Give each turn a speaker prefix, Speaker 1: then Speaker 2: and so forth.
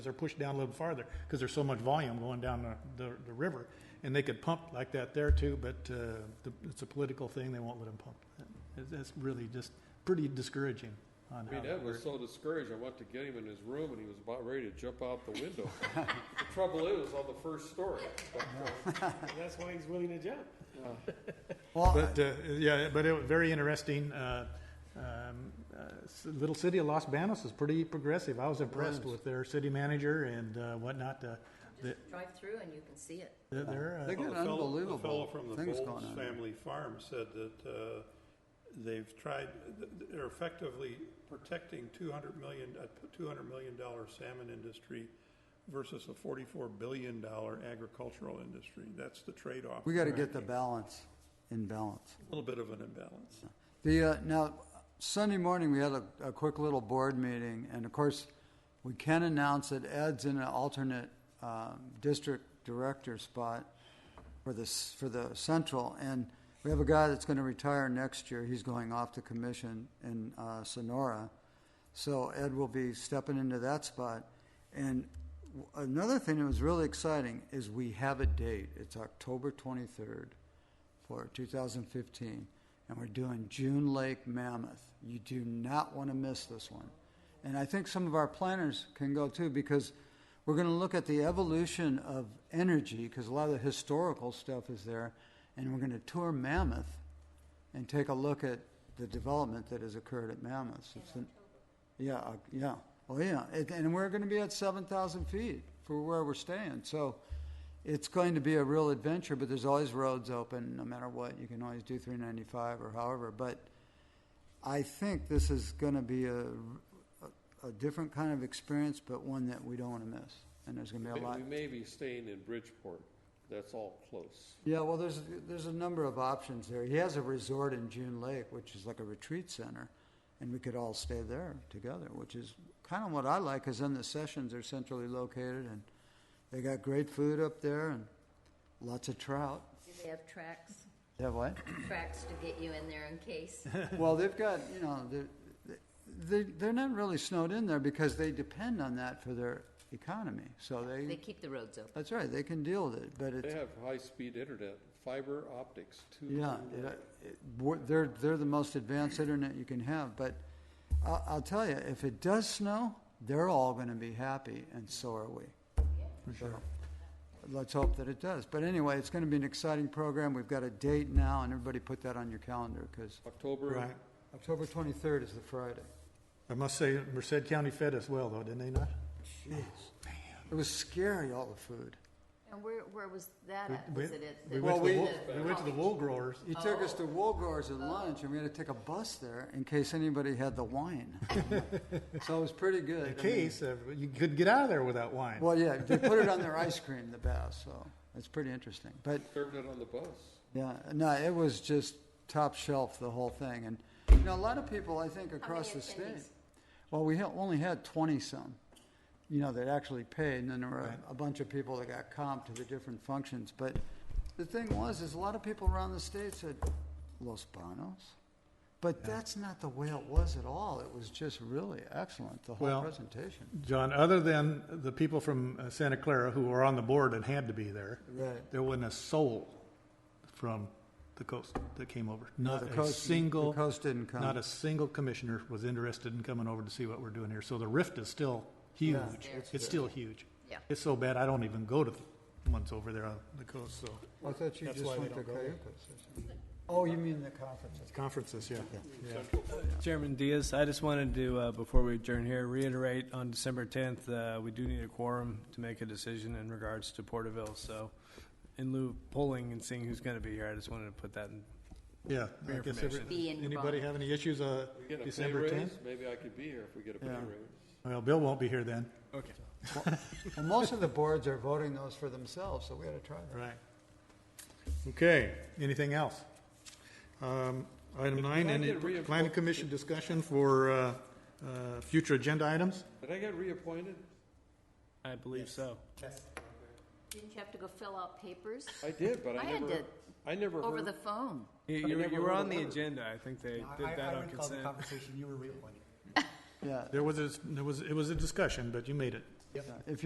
Speaker 1: they're pushed down a little farther because there's so much volume going down the, the, the river. And they could pump like that there too, but uh, the, it's a political thing. They won't let them pump. That- That's really just pretty discouraging. On
Speaker 2: I mean,
Speaker 1: how
Speaker 2: that was
Speaker 1: works.
Speaker 2: so discouraged. I went to get him in his room, and he was about ready to jump out the window. the trouble is, on the first story. But, uh,
Speaker 3: And that's why he's willing to jump.
Speaker 4: Well,
Speaker 1: But uh, yeah, but it was very interesting. Uh, um, uh, s- little city of Los Banos is pretty progressive. I was impressed with their city manager and uh, whatnot. Uh, the,
Speaker 5: Drive through and you can see it.
Speaker 1: they're- they're, uh,
Speaker 4: They get
Speaker 6: Well, the fellow-
Speaker 4: unbelievable
Speaker 6: The fellow from the
Speaker 4: things
Speaker 6: Bolts
Speaker 4: going on.
Speaker 6: Family Farm said that uh, they've tried, th- th- they're effectively protecting 200 million, a $200 million salmon industry versus a $44 billion agricultural industry. That's the trade-off.
Speaker 4: we got to
Speaker 6: Right.
Speaker 4: get the balance in balance.
Speaker 6: A little bit of an imbalance.
Speaker 4: The, uh, now, Sunday morning, we had a, a quick little board meeting, and of course, we can announce that Ed's in an alternate, um, district director spot for the, s- for the central, and we have a guy that's gonna retire next year, he's going off the commission in, uh, Sonora. So Ed will be stepping into that spot, and w- another thing that was really exciting is we have a date, it's October twenty-third for 2015, and we're doing June Lake Mammoth. You do not want to miss this one. And I think some of our planners can go too because we're going to look at the evolution of energy because a lot of the historical stuff is there, and we're going to tour Mammoth and take a look at the development that has occurred at Mammoth. It's an- yeah, uh, yeah. Oh, yeah. It, and we're going to be at 7,000 feet for where we're staying. So it's going to be a real adventure, but there's always roads open no matter what. You can always do 395 or however. But I think this is going to be a, a, a different kind of experience, but one that we don't want to miss. And there's going to be a lot.
Speaker 2: uh, we may be staying in Bridgeport. That's all close.
Speaker 4: Yeah, well, there's there's a number of options there. He has a resort in June Lake, which is like a retreat center, and we could all stay there together, which is kind of what I like. Because then the sessions are centrally located, and they got great food up there and lots of trout.
Speaker 5: Do they have tracks,
Speaker 4: Yeah, what?
Speaker 5: tracks to get you in there in case?
Speaker 4: well, they've got you know they're, they they're not really snowed in there because they depend on that for their economy. So they,
Speaker 5: They keep the roads open.
Speaker 4: that's right, they can deal with it. But it's
Speaker 2: They have high-speed internet, fiber optics, too.
Speaker 4: Yeah, it- it- we're- they're, they're the most advanced internet you can have, but I'll, I'll tell you, if it does snow, they're all gonna be happy, and so are we. For sure. Let's hope that it does, but anyway, it's gonna be an exciting program, we've got a date now, and everybody put that on your calendar, because
Speaker 2: October,
Speaker 1: right.
Speaker 4: October twenty-third is the Friday.
Speaker 1: I must say, Merced County fed us well, though, didn't they not?
Speaker 4: It was scary, all the food.
Speaker 5: And where, where was that
Speaker 1: We-
Speaker 5: at?
Speaker 1: we-
Speaker 5: Was it at?
Speaker 1: We went to
Speaker 5: the-
Speaker 4: Well,
Speaker 1: the,
Speaker 4: we-
Speaker 1: wool- we went to the wool growers.
Speaker 4: He took us to Woolgar's at lunch, and we had to take a bus there in case anybody had the wine. So it was pretty good.
Speaker 1: In
Speaker 4: I mean-
Speaker 1: case, uh, you couldn't get out of there without wine.
Speaker 4: Well, yeah, they put it on their ice cream, the best, so it's pretty interesting. But
Speaker 2: served it on the bus.
Speaker 4: yeah, no, it was just top shelf, the whole thing. And you know, a lot of people, I think, across the
Speaker 5: many
Speaker 4: state.
Speaker 5: attendees?
Speaker 4: Well, we ha- only had 20 some, you know, that actually paid, and then there were a, a bunch of people that got comped to the different functions. But the thing was, is a lot of people around the state said, Los Banos? But that's not the way it was at all. It was just really excellent, the whole
Speaker 1: Well,
Speaker 4: presentation.
Speaker 1: John, other than the people from uh, Santa Clara who were on the board and had to be there,
Speaker 4: Right.
Speaker 1: there wasn't a soul from the coast that came over.
Speaker 4: No,
Speaker 1: Not
Speaker 4: the
Speaker 1: a
Speaker 4: coast- the
Speaker 1: single.
Speaker 4: coast didn't come.
Speaker 1: Not a single commissioner was interested in coming over to see what we're doing here. So the rift is still huge.
Speaker 5: it's
Speaker 1: It's still huge.
Speaker 5: Yeah.
Speaker 1: It's so bad, I don't even go to the ones over there on the coast, so.
Speaker 4: I thought you
Speaker 1: That's
Speaker 4: just
Speaker 1: why they
Speaker 4: went to
Speaker 1: don't go there.
Speaker 4: Cayucas. Oh, you mean the conferences?
Speaker 1: Conferences, yeah.
Speaker 7: Chairman Diaz, I just wanted to, uh, before we adjourn here, reiterate on December 10th, uh, we do need a quorum to make a decision in regards to Porterville. So in lieu of polling and seeing who's going to be here, I just wanted to put that in.
Speaker 1: Yeah. I guess every-
Speaker 7: information.
Speaker 5: Be
Speaker 1: Anybody
Speaker 5: involved.
Speaker 1: have any issues, uh,
Speaker 2: We get a pay
Speaker 1: December
Speaker 2: raise,
Speaker 1: tenth?
Speaker 2: maybe I could be here if we get a pay
Speaker 4: Yeah.
Speaker 2: raise.
Speaker 1: Well, Bill won't be here then.
Speaker 7: Okay.
Speaker 4: Well, most of the boards are voting those for themselves, so we ought to try that.
Speaker 1: Right. Okay, anything else? Um, Item nine,
Speaker 2: I
Speaker 1: any
Speaker 2: get reinforced-
Speaker 1: planning commission discussion for uh, uh, future agenda items?
Speaker 2: Did I get reappointed?
Speaker 7: I believe so.
Speaker 5: Didn't you have to go fill out papers?
Speaker 2: I did, but
Speaker 5: I
Speaker 2: I
Speaker 5: had
Speaker 2: never,
Speaker 5: to-
Speaker 2: I never
Speaker 5: Over
Speaker 2: heard.
Speaker 5: the phone.
Speaker 7: You,
Speaker 2: I
Speaker 7: you were-
Speaker 2: never
Speaker 7: you were
Speaker 2: heard a
Speaker 7: on the
Speaker 2: word.
Speaker 7: agenda. I think they
Speaker 3: I-
Speaker 7: did that
Speaker 3: I
Speaker 7: on
Speaker 3: recall the
Speaker 7: consent.
Speaker 3: conversation, you were reappointed.
Speaker 4: Yeah,
Speaker 1: There was, a- there was, it was a discussion, but you made it. Yep.
Speaker 4: So If